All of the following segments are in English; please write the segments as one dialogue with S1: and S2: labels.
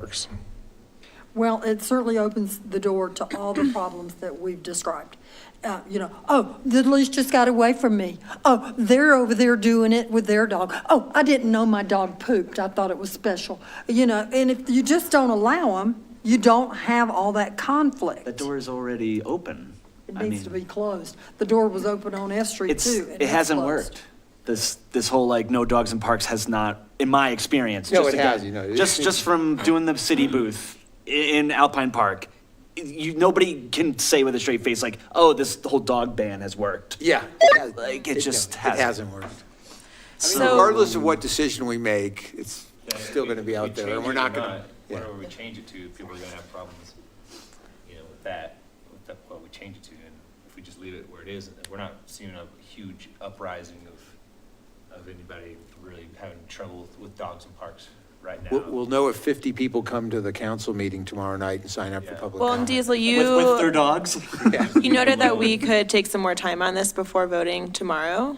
S1: works.
S2: Well, it certainly opens the door to all the problems that we've described. Uh, You know, oh, the leash just got away from me. Oh, they're over there doing it with their dog. Oh, I didn't know my dog pooped. I thought it was special. You know, and if you just don't allow them, you don't have all that conflict.
S3: That door is already open.
S2: It
S3: I
S2: needs to
S3: mean,
S2: be closed. The door was open on S Street
S3: It's,
S2: too. and
S3: it
S2: that's
S3: hasn't
S2: closed.
S3: worked. This, this whole like no dogs in parks has not, in my experience.
S4: No,
S3: just
S4: it
S3: again-
S4: has, you know, it-
S3: Just,
S4: it-
S3: just from doing the city booth i- in Alpine Park, you, nobody can say with a straight face like, oh, this whole dog ban has worked.
S4: Yeah.
S3: Like, it just
S4: It
S3: hasn't.
S4: hasn't worked. I mean,
S5: So,
S4: Regardless of what decision we make, it's still going to be out there, and we're not going to.
S6: Whatever we change it to, people are gonna have problems, you know, with that, with that, what we change it to, and if we just leave it where it is, we're not seeing a huge uprising of, of anybody really having trouble with- with dogs in parks right now.
S4: We'll, we'll know if 50 people come to the council meeting tomorrow night and sign up for
S6: Yeah.
S4: public
S5: well, and
S4: comment.
S5: Diesel,
S3: With, with their
S5: you,
S3: dogs?
S5: you noted that we could take some more time on this before voting tomorrow.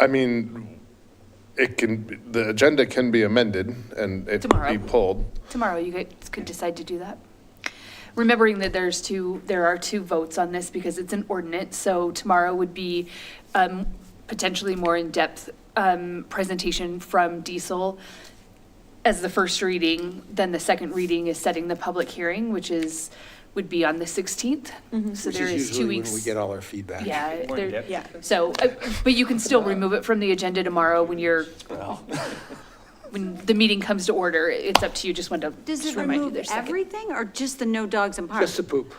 S1: I mean, it can, the agenda can be amended and it can be
S7: Tomorrow.
S1: pulled.
S7: Tomorrow, you guys could decide to do that. Remembering that there's two, there are two votes on this because it's an ordinance, so tomorrow would be um, potentially more in-depth um, presentation from Diesel as the first reading, then the second reading is setting the public hearing, which is, would be on the 16th. So
S4: Mm-hmm. Which
S7: there
S4: is
S7: is two
S4: usually
S7: weeks.
S4: when we get all our feedback.
S7: Yeah,
S6: More
S7: there-
S6: in-depth.
S5: Yeah.
S7: so, uh, but you can still remove it from the agenda tomorrow when you're, when the meeting comes to order. It's up to you, just wanted to
S8: Does
S7: just
S8: it
S7: remind you
S8: remove
S7: there's second.
S8: everything or just the no dogs in parks?
S4: Just the poop.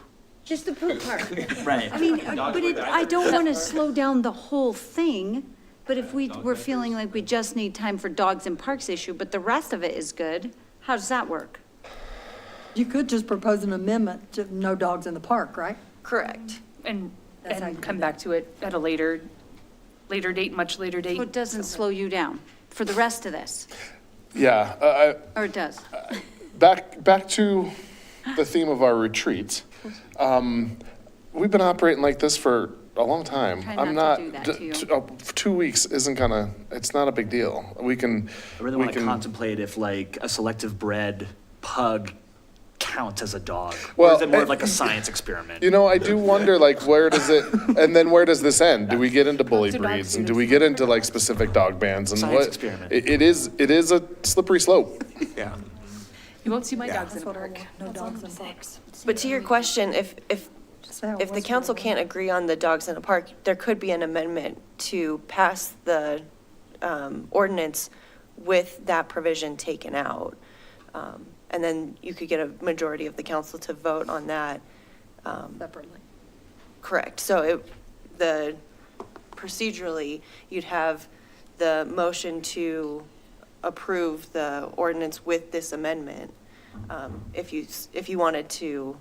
S8: Just the poop part?
S3: Right.
S8: I mean, uh, but it, I don't want to slow down the whole thing, but if we, we're feeling like we just need time for dogs in parks issue, but the rest of it is good, how does that work?
S2: You could just propose an amendment to no dogs in the park, right?
S8: Correct.
S7: And,
S2: That's how you
S7: and
S2: do
S7: come
S2: that.
S7: back to it at a later, later date, much later
S8: So it
S7: date.
S8: doesn't slow you down for the rest of this,
S1: Yeah, I, I,
S8: or it does?
S1: back back to the theme of our retreat. Um, we've been operating like this for a long time.
S8: Try
S1: I'm not.
S8: not to do that to you.
S1: t- uh, two weeks isn't gonna. It's not a big deal. We can.
S3: I really
S1: we
S3: want to
S1: can-
S3: contemplate if like a selective bred pug counts as a dog. Or
S1: Well,
S3: is it
S4: eh,
S3: more
S1: I-
S3: of like a science experiment?
S1: You know, I do wonder, like, where does it, and then where does this end? Do we get into bully
S7: Dogs are dogs,
S1: breeds,
S7: you
S1: and
S7: know.
S1: do we get into like specific dog bans and
S3: Science
S1: what?
S3: experiment.
S1: It, it is, it is a slippery slope.
S4: Yeah.
S7: You won't see my dogs in
S2: That's
S7: the
S2: what I
S7: park.
S2: want, No dogs in parks.
S9: But to your question, if, if,
S2: Just how it
S9: if the
S2: was for
S9: council
S2: a
S9: can't agree on the dogs in the park, there could be an amendment to pass the um, ordinance with that provision taken out. Um, And then you could get a majority of the council to vote on that. um,
S2: while, Separately.
S9: Correct. So it, the, procedurally, you'd have the motion to approve the ordinance with this amendment. um, If you, s- if you wanted to,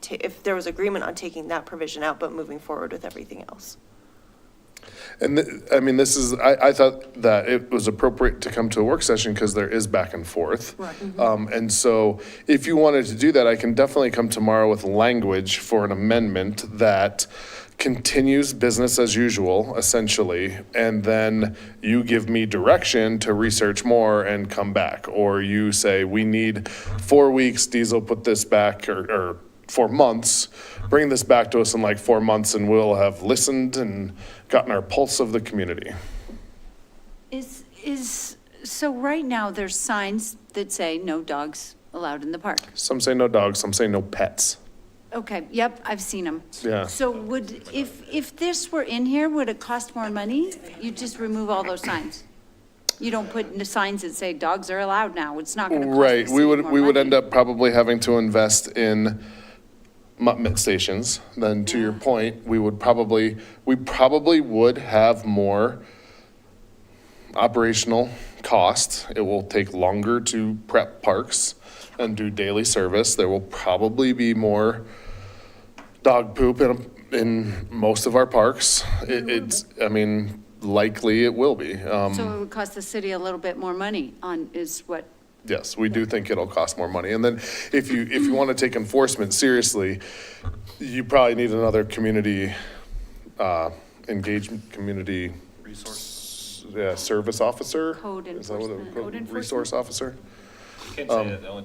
S9: ta- if there was agreement on taking that provision out, but moving forward with everything else.
S1: And th- I mean, this is, I, I thought that it was appropriate to come to a work session because there is back and forth.
S2: Right.
S1: Um, and so if you wanted to do that, I can definitely come tomorrow with language for an amendment that continues business as usual, essentially. And then you give me direction to research more and come back. Or you say, we need four weeks, Diesel, put this back or, or four months. Bring this back to us in like four months and we'll have listened and gotten our pulse of the community.
S8: Is, is, so right now, there's signs that say no dogs allowed in the park.
S1: Some say no dogs, some say no pets.
S8: Okay, yep, I've seen them.
S1: Yeah.
S8: So would, if, if this were in here, would it cost more money? You just remove all those signs? You don't put the signs that say dogs are allowed now, it's not gonna cost the
S1: Right, we
S8: city
S1: would,
S8: more
S1: we would
S8: money.
S1: end up probably having to invest in mutt stations. Then to your point, we would probably, we probably would have more operational cost. It will take longer to prep parks and do daily service. There will probably be more dog poop in, in most of our parks. It- It's, I mean, likely it will be. Um,
S8: So it would cost the city a little bit more money on, is what,
S1: Yes, we do think it'll cost more money. And then if you, if you want to take enforcement seriously, you probably need another community, uh, engagement, community. Resource. Yeah, service officer?
S8: Code
S1: Is that what it-
S8: enforcement.
S1: Resource officer?
S4: um,
S6: Can't say that the only